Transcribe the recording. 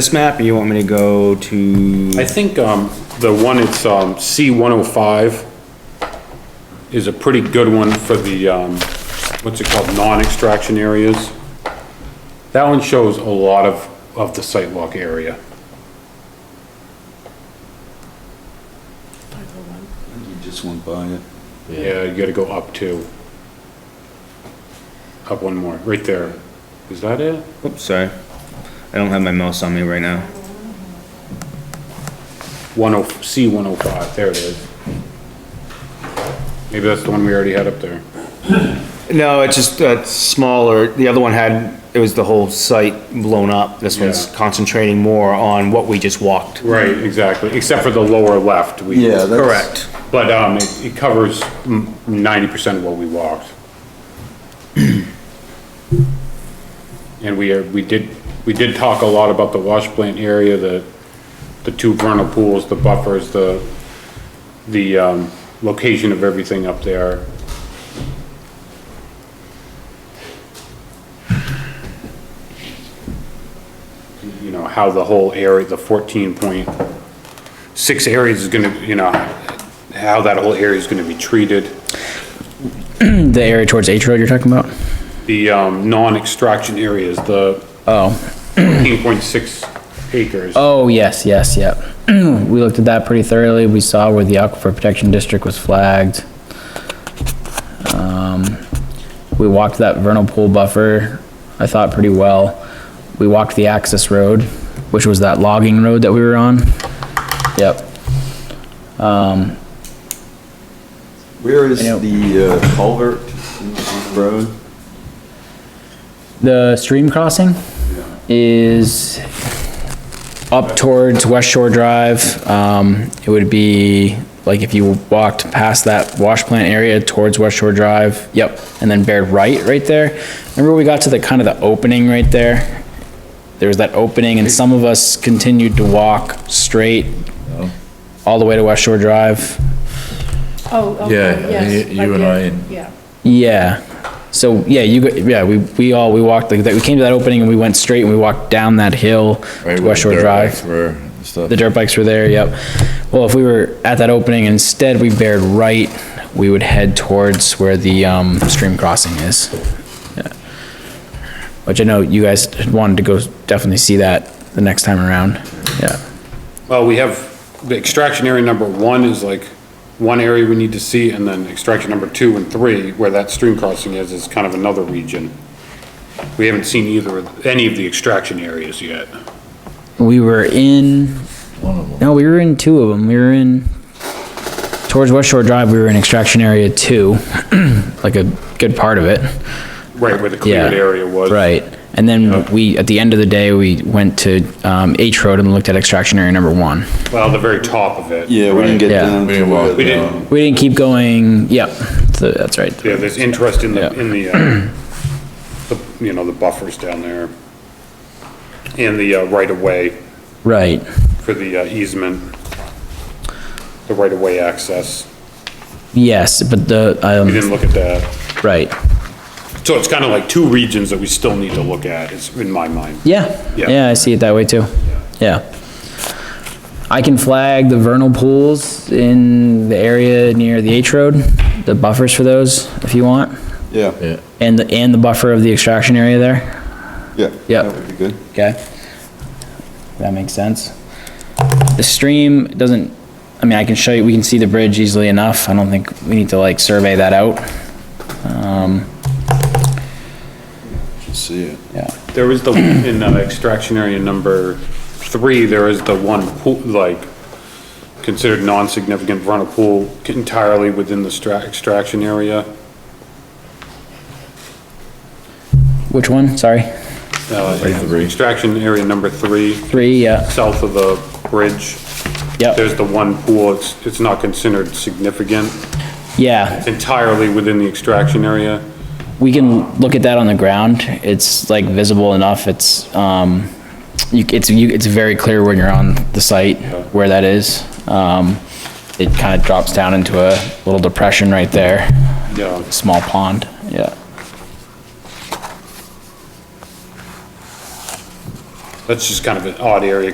This map, or you want me to go to, I think, um, the one, it's, um, C one oh five is a pretty good one for the, um, what's it called, non-extraction areas. That one shows a lot of, of the sidewalk area. You just went by it. Yeah, you gotta go up two. Up one more, right there. Is that it? oops, sorry. I don't have my mouse on me right now. One oh, C one oh five, there it is. Maybe that's the one we already had up there. No, it's just, uh, smaller, the other one had, it was the whole site blown up. This one's Yeah. concentrating more on what we just walked. Right, exactly, except for the lower left. we- Yeah, that's- Correct. But, um, it, it covers ninety percent of what we walked. And we are, we did, we did talk a lot about the wash plant area, the, the two vernal pools, the buffers, the, the, um, location of everything up there. You know, how the whole area, the fourteen point six areas is gonna, you know, how that whole area is gonna be treated. The area towards H Road you're talking about? The, um, non-extraction areas, the Oh, eighteen point six acres. oh, yes, yes, yep. We looked at that pretty thoroughly. We saw where the Aquifer Protection District was flagged. Um, we walked that vernal pool buffer, I thought pretty well. We walked the access road, which was that logging road that we were on. Yep. Where is I know. the uh, culvert in the road? The stream crossing is up towards West Shore Drive. Um, it would be, like, if you walked past that wash plant area towards West Shore Drive, yep, and then bared right, right there. Remember we got to the, kind of the opening right there? There was that opening, and some of us continued to walk straight all the way to West Shore Drive. Oh, okay, Yeah, I yes, mean, you and did, I and- Yeah, Yeah. So, yeah, you, go- yeah, we, we all, we walked, like, that. we came to that opening and we went straight and we walked down that hill Right, to where West the Shore dirt Drive. bikes were and stuff. The dirt bikes were there, yep. Well, if we were at that opening, instead we bared right, we would head towards where the, um, stream crossing is. Yeah. Which I know you guys wanted to go definitely see that the next time around. Yeah. Well, we have, the extraction area number one is like one area we need to see, and then extraction number two and three, where that stream crossing is, is kind of another region. We haven't seen either, of any of the extraction areas yet. We were in, One of them. no, we were in two of them. We were in, towards West Shore Drive, we were in extraction area two, like a good part of it. Right where the cleared Yeah, area was. Right. And then we, at the end of the day, we went to, um, H Road and looked at extraction area number one. Well, the very top of it. Yeah, we didn't get Yeah. down. We to uh, didn't where walk We the- didn't, We didn't keep going, yep, so that's right. yeah, there's interest in the, Yeah. in the, uh, the, you know, the buffers down there. And the uh, right-of-way Right, for the uh, easement. The right-of-way access. yes, but the, We um, didn't look at that. right, So it's kind of like two regions that we still need to look at, is in my mind. yeah, Yeah. yeah, I see it that way too, yeah. I can flag the vernal pools in the area near the H Road, the buffers for those, if you want, Yeah, Yeah, and, the and the buffer of the extraction area there, yeah. Yep. That would be good. okay? That makes sense. The stream doesn't, I mean, I can show you, we can see the bridge easily enough, I don't think we need to like survey that out. Should see it. There is the, in uh, extraction area number three, there is the one pool, like, considered non-significant vernal pool entirely within the stra- extraction area. Which one, sorry? Uh, three. Extraction area number three, Three, yeah, south of the bridge, yep, there's the one pool, it's, it's not considered significant, yeah. entirely within the extraction area. We can look at that on the ground. It's like visible enough. It's, um, you, it's, you, it's very clear when you're on the site where that is. Um, it kind of drops down into a little depression right there, Yeah, small pond, yeah. That's just kind of an odd area,